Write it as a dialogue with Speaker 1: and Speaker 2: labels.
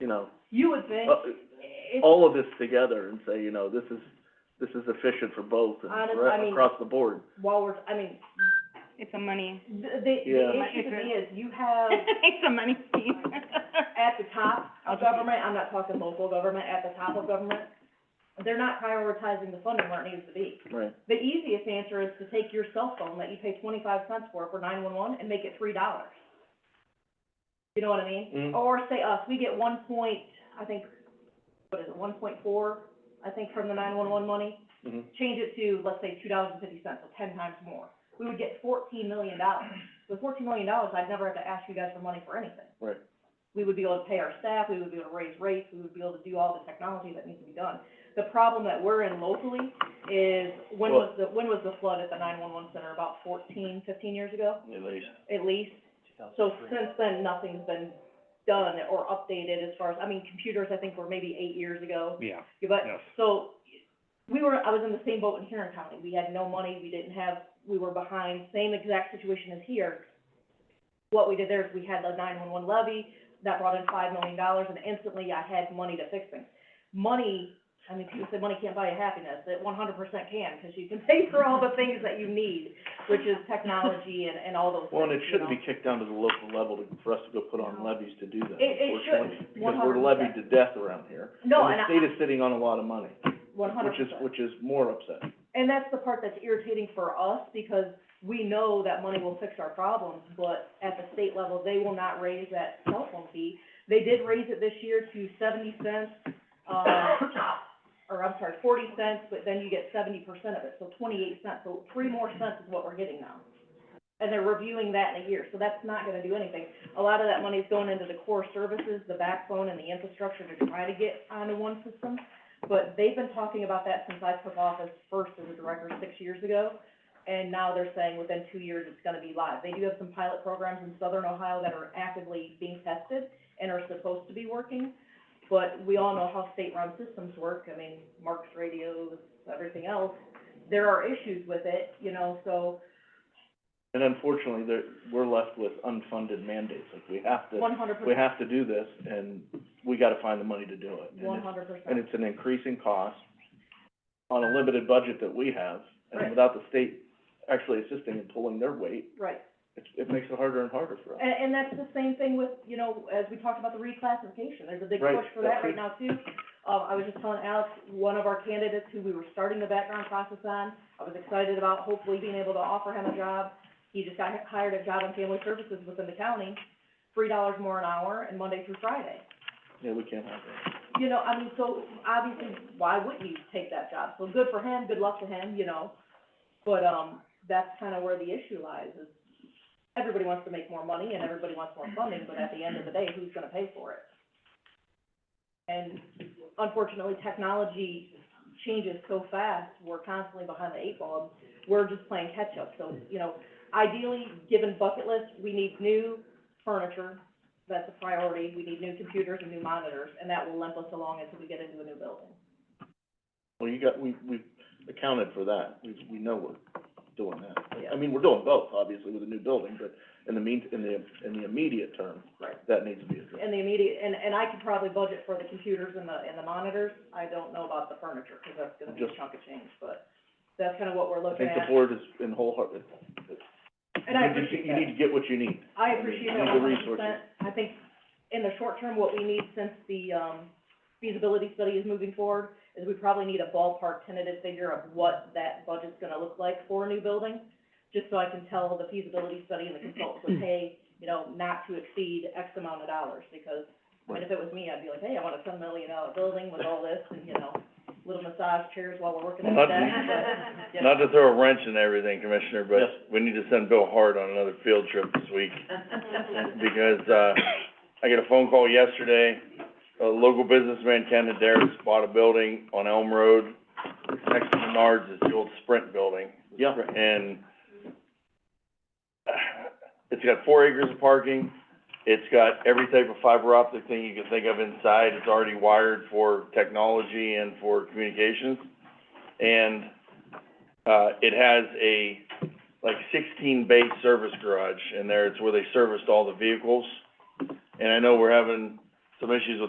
Speaker 1: you know,
Speaker 2: You would think,
Speaker 1: Uh,
Speaker 2: if,
Speaker 1: all of this together and say, you know, this is, this is efficient for both and
Speaker 2: Honest-
Speaker 1: ra-
Speaker 2: I mean-
Speaker 1: across the board.
Speaker 2: while we're, I mean,
Speaker 3: It's a money,
Speaker 2: the, the
Speaker 1: Yeah.
Speaker 2: the issue to me is you have
Speaker 3: it's a money scheme.
Speaker 2: at the top
Speaker 3: I'll
Speaker 2: of
Speaker 3: just-
Speaker 2: government, I'm not talking local government, at the top of government, they're not prioritizing the funding where it needs to be.
Speaker 1: Right.
Speaker 2: The easiest answer is to take your cell phone that you pay twenty-five cents for, for nine-one-one, and make it three dollars. You know what I mean?
Speaker 1: Mm.
Speaker 2: Or say us, we get one point, I think, what is it, one point four, I think, from the nine-one-one money.
Speaker 1: Mhm.
Speaker 2: change it to, let's say, two dollars and fifty cents, so ten times more, we would get fourteen million dollars. With fourteen million dollars, I'd never have to ask you guys for money for anything.
Speaker 1: Right.
Speaker 2: We would be able to pay our staff, we would be able to raise rates, we would be able to do all the technology that needs to be done. The problem that we're in locally is, when was the, when was the flood at the nine-one-one center, about 14, 15 years ago,
Speaker 1: At least.
Speaker 2: at least? So since then, nothing's been done or updated as far as, I mean, computers, I think, were maybe eight years ago.
Speaker 4: Yeah,
Speaker 2: Yeah, But,
Speaker 4: Yes.
Speaker 2: so, we were, I was in the same boat in Huron County, we had no money, we didn't have, we were behind, same exact situation as here. What we did there is we had the nine-one-one levy, that brought in five million dollars, and instantly I had money to fix things. Money, I mean, people say money can't buy you happiness, it one hundred percent can, because you can pay for all the things that you need, which is technology and, and all those things,
Speaker 1: Well, and it
Speaker 2: you
Speaker 1: shouldn't
Speaker 2: know?
Speaker 1: be kicked down to the local level to, for us to go put on levies to do that,
Speaker 2: It- it
Speaker 1: unfortunately.
Speaker 2: shouldn't,
Speaker 1: Because we're
Speaker 2: 100%.
Speaker 1: levied to death around here.
Speaker 2: No,
Speaker 1: And
Speaker 2: and
Speaker 1: the state
Speaker 2: I,
Speaker 1: is sitting on a lot of money,
Speaker 2: one hundred
Speaker 1: which is,
Speaker 2: percent.
Speaker 1: which is more upsetting.
Speaker 2: And that's the part that's irritating for us, because we know that money will fix our problems, but at the state level, they will not raise that cell phone fee. They did raise it this year to seventy cents, um, or I'm sorry, forty cents, but then you get seventy percent of it, so twenty-eight cents, so three more cents is what we're getting now. And they're reviewing that in a year, so that's not gonna do anything. A lot of that money's going into the core services, the backbone and the infrastructure to try to get onto one system. But they've been talking about that since I took office first as a director six years ago, and now they're saying within two years it's gonna be live. They do have some pilot programs in southern Ohio that are actively being tested and are supposed to be working, but we all know how state-run systems work, I mean, Mark's radios, everything else. There are issues with it, you know, so
Speaker 1: And unfortunately, there, we're left with unfunded mandates, like we have to,
Speaker 2: one hundred
Speaker 1: we
Speaker 2: percent,
Speaker 1: have to do this, and we gotta find the money to do it. And
Speaker 2: one
Speaker 1: it's-
Speaker 2: hundred
Speaker 1: and
Speaker 2: percent.
Speaker 1: it's an increasing cost on a limited budget that we have,
Speaker 2: Right.
Speaker 1: and without the state actually assisting and pulling their weight,
Speaker 2: Right.
Speaker 1: it, it makes it harder and harder for us.
Speaker 2: And, and that's the same thing with, you know, as we talked about the reclassification, there's a big
Speaker 1: Right,
Speaker 2: push for that
Speaker 1: that's
Speaker 2: right
Speaker 1: it.
Speaker 2: now too. Um, I was just telling Alex, one of our candidates who we were starting the background process on, I was excited about hopefully being able to offer him a job. He just got hi- hired at Job and Family Services within the county, three dollars more an hour and Monday through Friday.
Speaker 1: Yeah, we can't have that.
Speaker 2: You know, I mean, so obviously, why wouldn't you take that job? So good for him, good luck to him, you know. But, um, that's kind of where the issue lies, is everybody wants to make more money and everybody wants more funding, but at the end of the day, who's gonna pay for it? And unfortunately, technology changes so fast, we're constantly behind the eight ball, and we're just playing catch-up. So, you know, ideally, given bucket list, we need new furniture, that's a priority, we need new computers and new monitors, and that will limp us along until we get into a new building.
Speaker 1: Well, you got, we, we've accounted for that, we, we know we're doing that.
Speaker 2: Yeah.
Speaker 1: I mean, we're doing both, obviously, with the new building, but in the mean, in the, in the immediate term,
Speaker 2: Right.
Speaker 1: that needs to be addressed.
Speaker 2: And the immediate, and, and I could probably budget for the computers and the, and the monitors, I don't know about the furniture, because that's gonna be a
Speaker 1: Just-
Speaker 2: chunk of change, but that's kind of what we're
Speaker 1: I
Speaker 2: looking
Speaker 1: think
Speaker 2: at.
Speaker 1: the board is in wholehearted,
Speaker 2: And
Speaker 1: you need to-
Speaker 2: I appreciate
Speaker 1: You
Speaker 2: that.
Speaker 1: need to get what you need.
Speaker 2: I appreciate
Speaker 1: You need
Speaker 2: that one
Speaker 1: the
Speaker 2: hundred
Speaker 1: resources.
Speaker 2: percent. I think in the short term, what we need since the, um, feasibility study is moving forward, is we probably need a ballpark tentative figure of what that budget's gonna look like for a new building, just so I can tell the feasibility study and the consultants would pay, you know, not to exceed X amount of dollars, because, I mean, if it was me, I'd be like, hey, I want a ten million dollar building with all this, and, you know, little massage chairs while we're working on
Speaker 5: Well,
Speaker 2: that,
Speaker 5: not-
Speaker 2: but, you know.
Speaker 5: Not to throw a wrench in everything, Commissioner,
Speaker 1: Yes.
Speaker 5: but we need to send Bill Hart on another field trip this week, because, uh, I got a phone call yesterday. A local businessman, Ken Adair, bought a building on Elm Road, next to Menards, it's the old Sprint building.
Speaker 1: Yeah.
Speaker 5: And it's got four acres of parking, it's got every type of fiber optic thing you can think of inside, it's already wired for technology and for communications. And, uh, it has a, like sixteen bay service garage in there, it's where they serviced all the vehicles. And I know we're having some issues with